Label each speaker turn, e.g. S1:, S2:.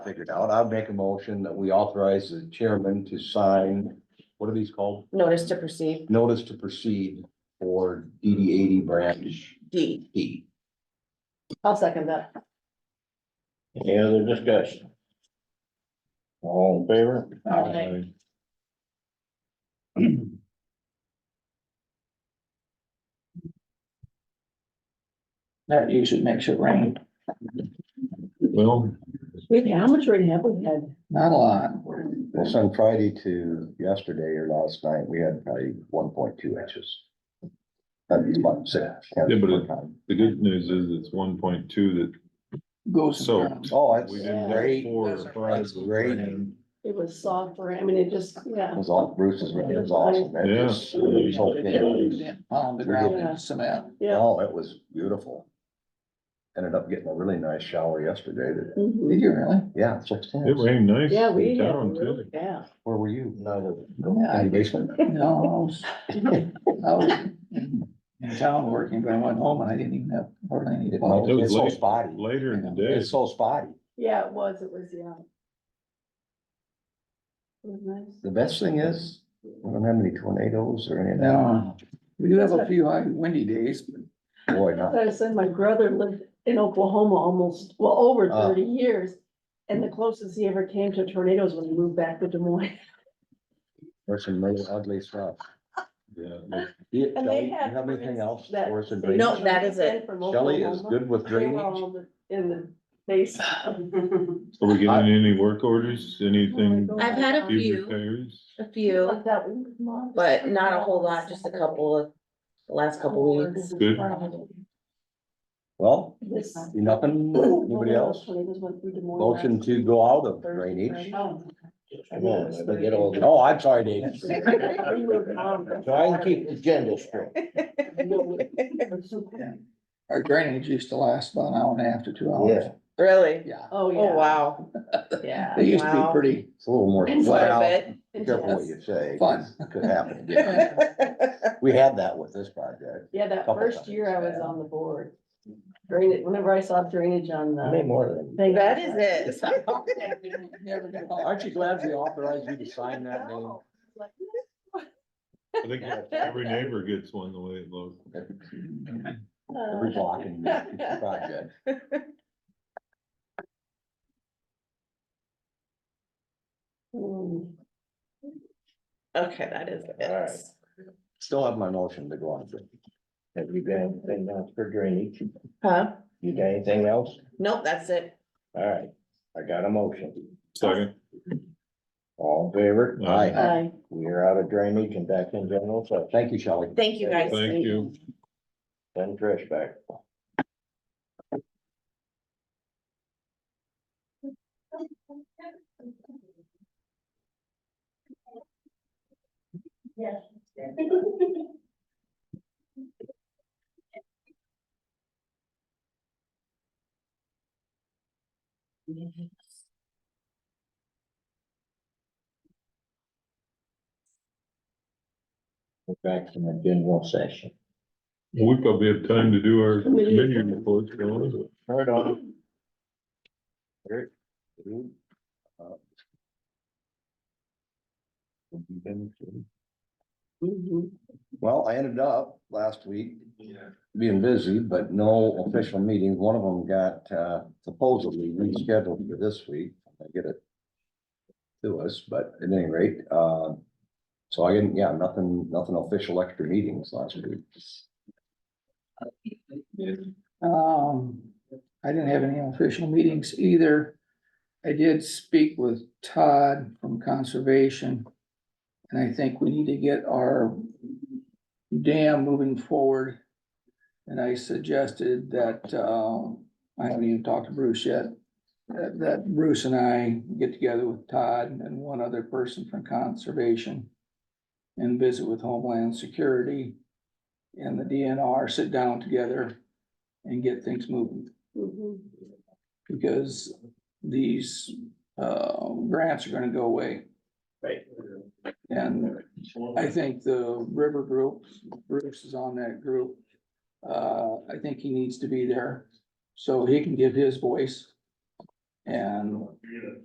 S1: figured out. I'd make a motion that we authorize the chairman to sign, what are these called?
S2: notice to proceed
S1: Notice to proceed for DD eighty branch
S2: D.
S1: D.
S2: I'll second that.
S3: Any other discussion? All in favor?
S2: Aye.
S4: That usually makes it rain.
S3: Well,
S5: Wait, how much rain have we had?
S4: Not a lot.
S1: Well, from Friday to yesterday or last night, we had probably one point two inches. That'd be about six.
S6: Yeah, but it- The good news is it's one point two that
S4: Goes.
S6: soaked.
S1: Oh,
S6: We
S1: that's
S6: didn't have
S1: great.
S6: four
S1: It
S6: or five.
S1: That's great.
S5: It was soft rain. I mean, it just, yeah.
S1: was all, Bruce's, it was awesome. It
S6: Yeah.
S1: just- it was okay.
S4: On the ground in cement.
S5: Yeah.
S1: Oh, it was beautiful. Ended up getting a really nice shower yesterday. that-
S5: Mhm.
S4: Did you really?
S1: Yeah, it's six
S6: It
S1: ten.
S6: rained nice
S5: Yeah, we
S6: in
S5: had,
S6: town
S5: really-
S6: too.
S5: yeah.
S1: Where were you? No,
S4: Yeah,
S1: In
S4: I-
S1: the basement?
S4: No, I was, I was in in town working, but I went home and I didn't even have hardly any.
S1: It
S4: clothes.
S1: might- It's so
S6: late.
S1: spotty.
S6: Later in the day,
S1: It's so spotty.
S5: Yeah, it was, it was, yeah. It was nice.
S1: The best thing is, we don't have any tornadoes or any of that.
S4: No, we do have a few high windy days, but
S1: Boy, not.
S5: I said, my brother lived in Oklahoma almost, well, over
S1: Ah.
S5: thirty years. And the closest he ever came to tornadoes was he moved back to Des Moines.
S1: There's some really ugly stuff.
S6: yeah, but
S1: You-
S5: And
S1: Shelley,
S5: they
S1: you
S5: had.
S1: have anything else
S5: that-
S1: for us in
S5: they-
S1: drainage?
S2: No, that is it.
S5: From
S1: Shelley is
S5: Oklahoma.
S1: good with
S5: They were
S1: drainage.
S5: all In the base. Like
S6: are we getting any work orders, anything?
S5: Oh my
S2: I've had a
S5: God.
S6: These
S2: few,
S6: repairs?
S2: a few,
S5: that one, Mom.
S2: but not a whole lot, just a couple of, the last couple weeks.
S6: Good.
S1: Well,
S5: This-
S1: nothing, anybody else?
S5: Tornadoes went through Des Moines last
S1: Motion to go out of
S5: Thursday,
S1: drainage.
S5: Friday.
S1: Oh, I'm sorry, Dave.
S5: We were, um,
S1: agenda straight.
S4: our drainage used to last about an hour and a half to two hours.
S2: Really?
S4: Yeah,
S5: Oh,
S2: Oh,
S5: yeah.
S2: wow.
S5: Yeah.
S4: they used to
S2: Wow.
S4: be pretty,
S1: It's a little more.
S5: And so-
S2: Quite
S1: Well,
S2: a
S1: Be careful what you say. 'cause it Could happen again.
S2: bit.
S1: We had that with this project.
S5: Yeah, that
S1: Couple
S5: first year I was
S1: times, yeah.
S5: on the board. Drainage, whenever I saw drainage on the.
S1: more than.
S5: thing-
S2: That is it.
S1: Aren't you glad we authorized you to sign that name?
S5: No. Like,
S6: I think every neighbor gets one the way it looks.
S1: Every
S5: uh,
S1: block in the project.
S5: hmm.
S2: Okay, that is it.
S1: Still have my motion to go on.
S3: Have you got anything else for drainage?
S2: Huh?
S3: You got anything else?
S2: Nope, that's it.
S3: All right, I got a motion.
S6: Second,
S3: All in favor?
S6: Aye.
S5: Aye.
S3: We are out of drainage and back in general session.
S1: Thank you, Shelley.
S2: Thank you guys.
S6: thank you.
S3: Send Trish back. We're Back in the general session.
S6: We probably have time to do our committee reports, don't we?
S3: Right on. Eric, you, uh, have you been to-
S1: Well, I ended up last week being busy, but no official meetings. One of them got uh, supposedly rescheduled for this week. I get it to us, but at any rate, uh, so I didn't, yeah, nothing, nothing official extra meetings last week.
S4: Um, I didn't have any official meetings either. I did speak with Todd from Conservation. And I think we need to get our dam moving forward. And I suggested that, um, I haven't even talked to Bruce yet. That, that Bruce and I get together with Todd and one other person from Conservation. And visit with Homeland Security and the DNR, sit down together and get things moving.
S5: Mhm.
S4: Because these uh grants are gonna go away.
S3: Right.
S4: And I think the river group, Bruce is on that group. Uh, I think he needs to be there, so he can give his voice. and